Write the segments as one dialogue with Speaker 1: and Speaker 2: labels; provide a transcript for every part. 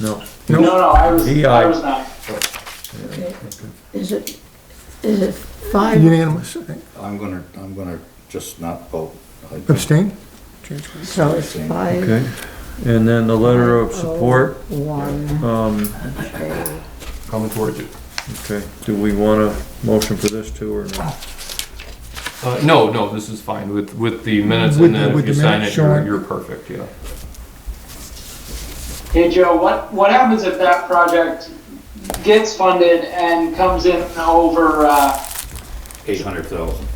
Speaker 1: No.
Speaker 2: No, no, I was,
Speaker 1: DI.
Speaker 2: I was not.
Speaker 3: Is it, is it five?
Speaker 4: Unanimous,
Speaker 5: I'm gonna, I'm gonna just not vote. I think
Speaker 4: abstain?
Speaker 3: So it's five, oh
Speaker 1: Okay, and then the letter of support,
Speaker 3: one.
Speaker 1: um,
Speaker 6: Coming towards you.
Speaker 1: okay, do we want a motion for this too or no?
Speaker 6: Uh, no, no, this is fine with, with the minutes
Speaker 4: With
Speaker 6: and
Speaker 4: the-
Speaker 6: then if
Speaker 4: with
Speaker 6: you
Speaker 4: the
Speaker 6: sign
Speaker 4: minutes
Speaker 6: it, you're,
Speaker 4: showing-
Speaker 6: you're perfect, yeah.
Speaker 2: Hey, Joe, what, what happens if that project gets funded and comes in over, uh,
Speaker 5: 800,000.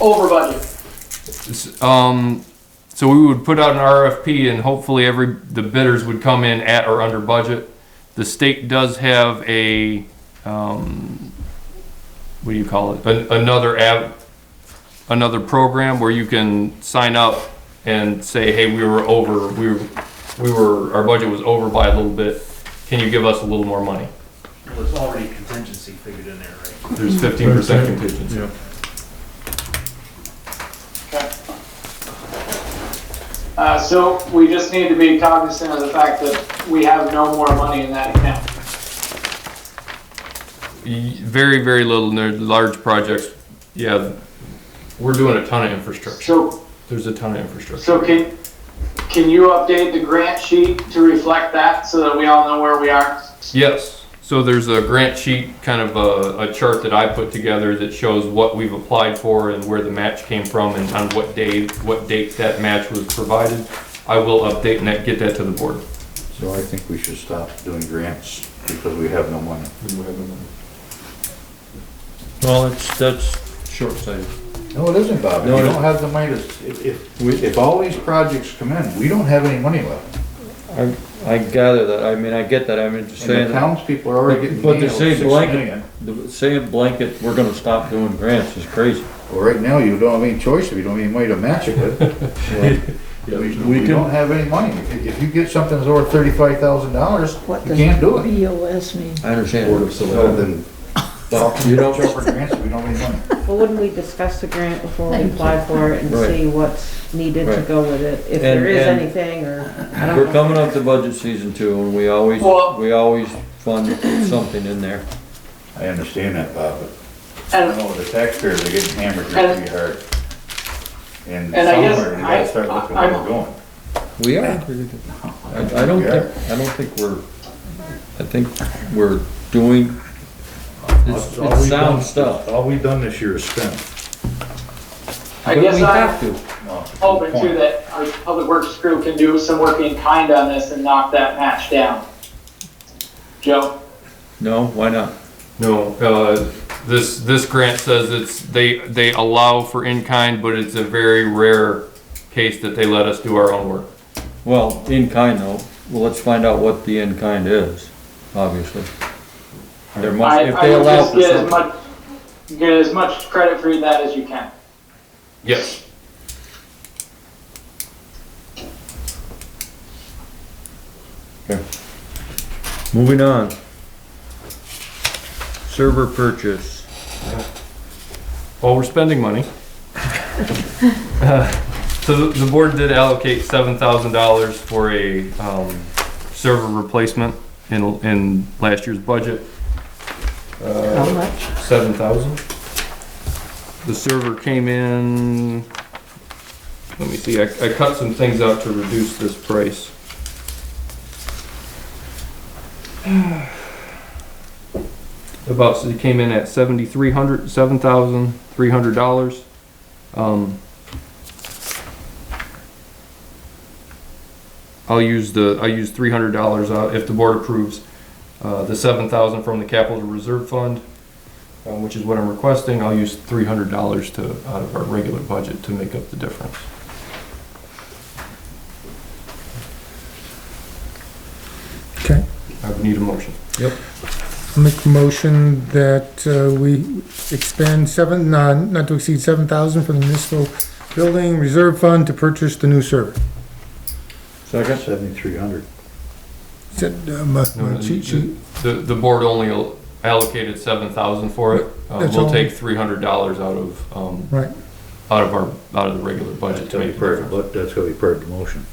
Speaker 2: over budget?
Speaker 6: S- Um, so we would put out an RFP and hopefully every, the bidders would come in at or under budget. The state does have a, um, what do you call it? An- Another av, another program where you can sign up and say, hey, we were over, we were, we were, our budget was over by a little bit. Can you give us a little more money?
Speaker 7: Well, there's already contingency figured in there, right?
Speaker 6: There's fifteen percent contingency.
Speaker 1: Yeah.
Speaker 2: Okay. Uh, so we just need to be cognizant of the fact that we have no more money in that account.
Speaker 6: Y- Very, very little, and they're large projects, yeah, we're doing a ton of infrastructure.
Speaker 2: So,
Speaker 6: There's a ton of infrastructure.
Speaker 2: so can, can you update the grant sheet to reflect that so that we all know where we are?
Speaker 6: Yes, so there's a grant sheet, kind of a, a chart that I put together that shows what we've applied for and where the match came from and on what day, what date that match was provided. I will update and that- get that to the board.
Speaker 5: So I think we should stop doing grants because we have no money.
Speaker 1: Well, it's, that's short-sighted.
Speaker 5: No, it isn't, Bob.
Speaker 1: No,
Speaker 5: We
Speaker 1: it-
Speaker 5: don't have the money to, s- if, if, we- if all these projects come in, we don't have any money left.
Speaker 1: I, I gather that, I mean, I get that, I mean, just
Speaker 5: And
Speaker 1: saying,
Speaker 5: the townspeople are already getting
Speaker 1: But
Speaker 5: nailed
Speaker 1: to
Speaker 5: six
Speaker 1: say blanket-
Speaker 5: million.
Speaker 1: the- saying blanket, we're gonna stop doing grants is crazy.
Speaker 5: Well, right now, you don't have any choice, if you don't have any money to match it with. Well, We, we don't have any money. If, if you get something that's over thirty-five thousand dollars,
Speaker 3: What
Speaker 5: you
Speaker 3: does
Speaker 5: can't do it.
Speaker 3: BOS mean?
Speaker 1: I understand.
Speaker 5: So then,
Speaker 1: But you
Speaker 5: jump
Speaker 1: don't,
Speaker 5: for grants, if we don't have any money.
Speaker 8: Well, wouldn't we discuss the grant before we
Speaker 3: Thank you.
Speaker 8: apply for it and
Speaker 1: Right.
Speaker 8: see what's needed to
Speaker 1: Right.
Speaker 8: go with it?
Speaker 1: And-
Speaker 8: If there is
Speaker 1: and-
Speaker 8: anything, or, I don't know.
Speaker 1: we're coming up to budget season two and we always,
Speaker 2: Well-
Speaker 1: we always fund something in there.
Speaker 5: I understand that, Bob, but
Speaker 2: And
Speaker 5: I know the taxpayers are getting hammered
Speaker 2: And-
Speaker 5: pretty hard. And
Speaker 2: And I guess
Speaker 5: somewhere, we gotta start
Speaker 2: I-
Speaker 5: looking where
Speaker 2: I'm-
Speaker 5: we're going.
Speaker 1: We are. I, I don't think, I don't think we're, I think we're doing, it's,
Speaker 5: All we've
Speaker 1: it's sound
Speaker 5: done-
Speaker 1: stuff.
Speaker 5: All we've done this year is spend.
Speaker 2: I
Speaker 1: But
Speaker 2: guess
Speaker 1: we
Speaker 2: I-
Speaker 1: have to.
Speaker 5: No, it's a good
Speaker 2: hoping
Speaker 5: point.
Speaker 2: too that our public works crew can do some work in kind on this and knock that match down. Joe,
Speaker 1: No, why not?
Speaker 6: No, uh, this, this grant says it's, they, they allow for in-kind, but it's a very rare case that they let us do our own work.
Speaker 1: Well, in kind though, well, let's find out what the in kind is, obviously. There must,
Speaker 2: I,
Speaker 1: if
Speaker 2: I
Speaker 1: they
Speaker 2: would
Speaker 1: allow
Speaker 2: just
Speaker 1: for
Speaker 2: get as
Speaker 1: something.
Speaker 2: much, get as much credit for that as you can.
Speaker 6: Yes.
Speaker 1: Moving on. Server purchase.
Speaker 6: Well, we're spending money. Uh, So the, the board did allocate seven thousand dollars for a, um, server replacement in, in last year's budget.
Speaker 3: How much?
Speaker 6: Seven thousand? The server came in, let me see, I, I cut some things out to reduce this price. About, so it came in at seventy-three hundred, seven thousand, three hundred dollars. Um, I'll use the, I'll use three hundred dollars, uh, if the board approves, uh, the seven thousand from the capital reserve fund um, which is what I'm requesting, I'll use three hundred dollars to, out of our regular budget to make up the difference.
Speaker 4: Okay.
Speaker 6: I would need a motion.
Speaker 4: Make a motion that uh, we expend seven, uh, not to exceed seven thousand from the municipal building reserve fund to purchase the new server.
Speaker 1: Second?
Speaker 5: Seventy-three hundred.
Speaker 4: Is that, uh, my- my cheat sheet?
Speaker 6: The, the board only allocated seven thousand for it, uh,
Speaker 4: That's
Speaker 6: we'll
Speaker 4: all.
Speaker 6: take three hundred dollars out of, um,
Speaker 4: Right.
Speaker 6: out of our, out of the regular budget
Speaker 5: That's
Speaker 6: to
Speaker 5: gonna
Speaker 6: make
Speaker 5: be
Speaker 6: it
Speaker 5: part of,
Speaker 6: different.
Speaker 5: the bu- that's gonna be part of the motion.